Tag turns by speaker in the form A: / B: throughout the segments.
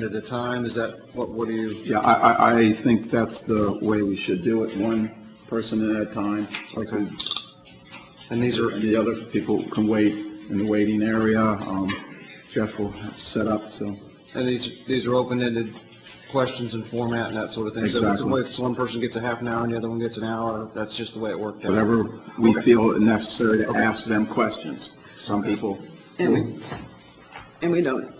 A: at a time, is that, what, what do you,
B: Yeah, I, I, I think that's the way we should do it, one person at a time. Okay.
A: and these are,
B: And the other people can wait in the waiting area. Um, Jeff will set up, so.
A: and these, these are open-ended questions and format and that sort of thing? So
B: Exactly.
A: if it's- one person gets a half an hour and the other one gets an hour, that's just the way it worked out?
B: whatever we feel necessary to ask them questions. Some people,
C: And we, and we don't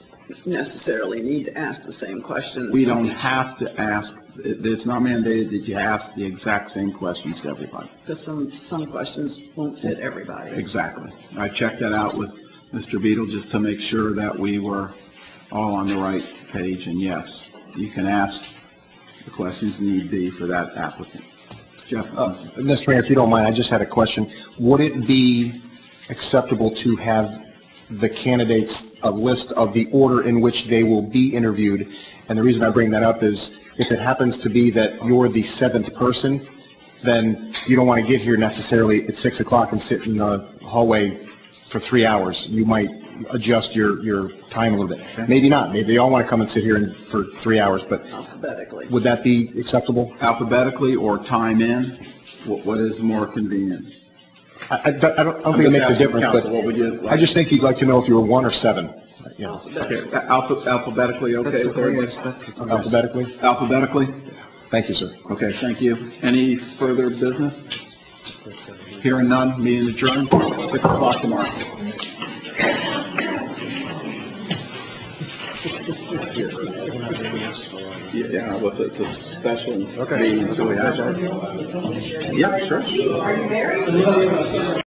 C: necessarily need to ask the same questions.
B: we don't have to ask, it- it's not mandated that you ask the exact same questions to everybody.
C: Because some, some questions won't fit everybody.
B: Exactly. I checked that out with Mr. Beadle just to make sure that we were all on the right page, and yes, you can ask the questions need be for that applicant. Jeff?
D: Mr. Mayor, Uh, if you don't mind, I just had a question. Would it be acceptable to have the candidates a list of the order in which they will be interviewed? And the reason I bring that up is if it happens to be that you're the seventh person, then you don't want to get here necessarily at six o'clock and sit in the hallway for three hours. You might adjust your, your time a little bit. Maybe not. Maybe they all want to come and sit here and- for three hours, but
C: Alphabetically.
D: would that be acceptable?
B: Alphabetically or time in, what what is more convenient?
D: I, I don't, I don't think it
B: just
D: makes a
B: asking
D: difference, but.
B: counsel, what would you like?
D: I just think you'd like to know if you were one or seven, you know,
B: Okay, alpha- Alphabetically, okay?
A: That's the
B: with everybody?
A: correct- that's the correct-
D: alphabetically.
B: Alphabetically?
D: Thank you, sir.
B: Okay, thank you. Any further business? Hearing none, meeting adjourned, 6 o'clock tomorrow. Yeah, Yeah, what's it, it's a special meeting, so we have. Yeah, sure.